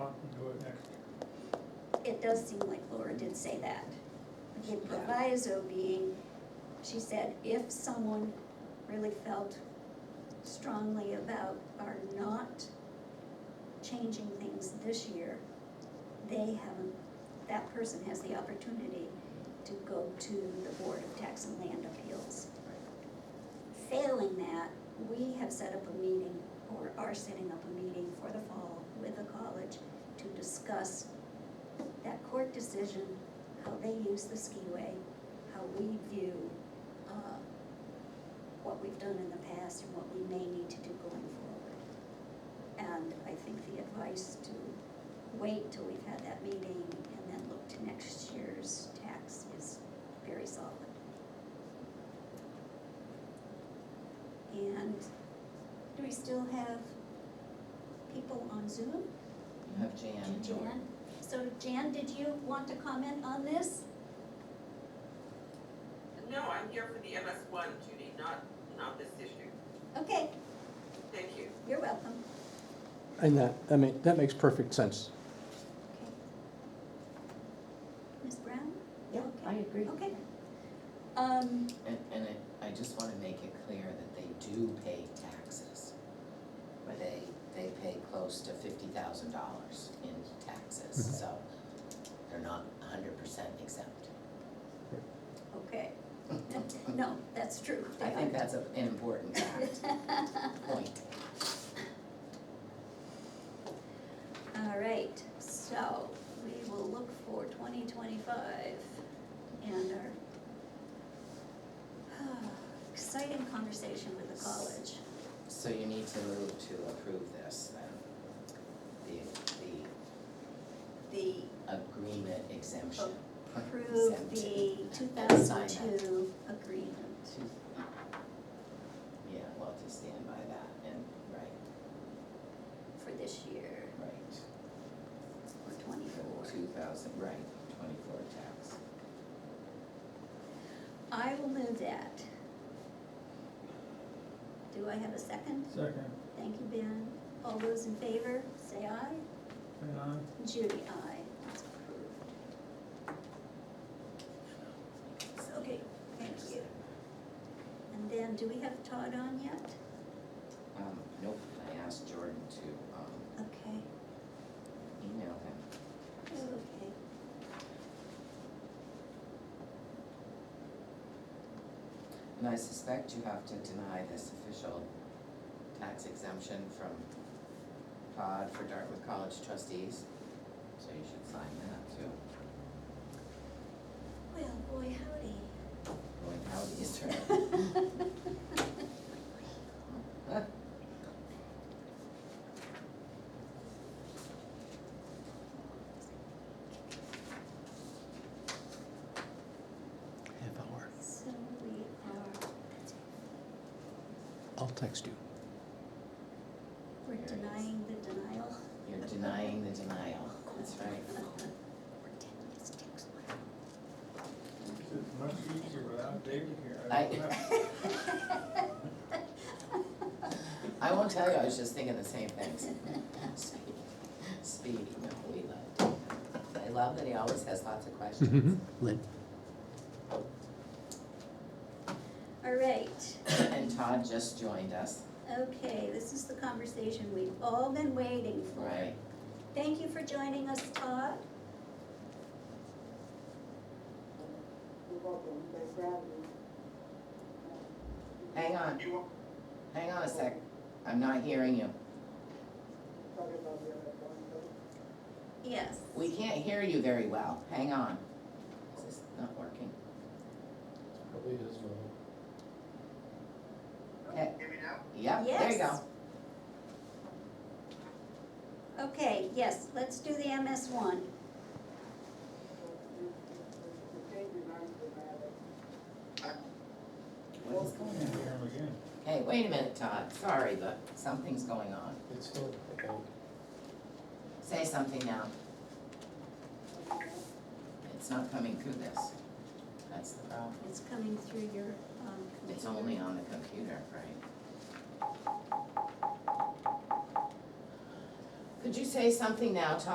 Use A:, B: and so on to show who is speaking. A: it does seem like Laura did say that. The proviso being, she said, if someone really felt strongly about our not changing things this year, they have, that person has the opportunity to go to the Board of Tax and Land Appeals. Failing that, we have set up a meeting, or are setting up a meeting for the fall with the college to discuss that court decision, how they use the skiway, how we view, uh, what we've done in the past and what we may need to do going forward. And I think the advice to wait till we've had that meeting and then look to next year's tax is very solid. And do we still have people on Zoom?
B: You have Jan.
A: Jan, so Jan, did you want to comment on this?
C: No, I'm here for the MS one, Judy, not, not this issue.
A: Okay,
C: Thank you.
A: you're welcome.
D: And that, I mean, that makes perfect sense.
A: Okay. Ms. Brown?
E: Yeah, I agree.
A: Okay. Um,
B: And, and it- I just wanna make it clear that they do pay taxes. They, they pay close to fifty thousand dollars in taxes, so they're not hundred percent exempt.
A: okay. No, that's true.
B: I think that's a- an important fact, point.
A: All right, so we will look for twenty twenty-five and our exciting conversation with the college.
B: So you need to move to approve this then, the,
A: The
B: the agreement exemption.
A: approve the
B: Exemption.
A: two
B: And sign
A: thousand
B: that.
A: two agreement.
B: Yeah, well, to stand by that, and, right,
A: for this year,
B: right.
A: or twenty-four.
B: Two thousand, right, twenty-four tax.
A: I will move that. Do I have a second?
F: Second,
A: Thank you, Ben. All those in favor, say aye.
F: and I,
A: Judy, aye. That's approved. Okay, thank you. And then, do we have Todd on yet?
B: Um, nope, I asked Jordan to, um,
A: Okay,
B: email him.
A: okay.
B: And I suspect you have to deny this official tax exemption from Todd for Dartmouth College trustees, so you should sign that too.
A: Well, boy, howdy.
B: Going out Easter.
D: Half hour.
A: So we are,
D: I'll text you.
A: we're
B: There it is.
A: denying the denial.
B: You're denying the denial, that's right.
A: We're ten, it's text line.
F: it's much easier without David here.
B: I-
F: don't know.
B: I won't tell you, I was just thinking the same things. Speed, speed, no, we love. I love that he always has lots of questions.
D: Lynn?
A: All right,
B: And Todd just joined us,
A: okay, this is the conversation we've all been waiting for.
B: right?
A: Thank you for joining us, Todd.
E: You're welcome, they grabbed me.
B: Hang on,
G: You,
B: hang on a sec, I'm not hearing you.
E: Talking about the other one, though.
A: Yes.
B: We can't hear you very well, hang on. Is this not working?
H: Probably his fault.
B: Okay.
G: hear me now?
B: Yep, there you go.
A: Yes. Okay, yes, let's do the MS one.
E: The thing reminds me of it.
B: What is
F: Can't
B: going on?
F: hear him again.
B: Hey, wait a minute, Todd, sorry, but something's going on.
H: It's still about
B: Say something now, it's not coming through this. That's the problem.
A: It's coming through your, um, computer.
B: It's only on the computer, right? Could you say something now, Todd?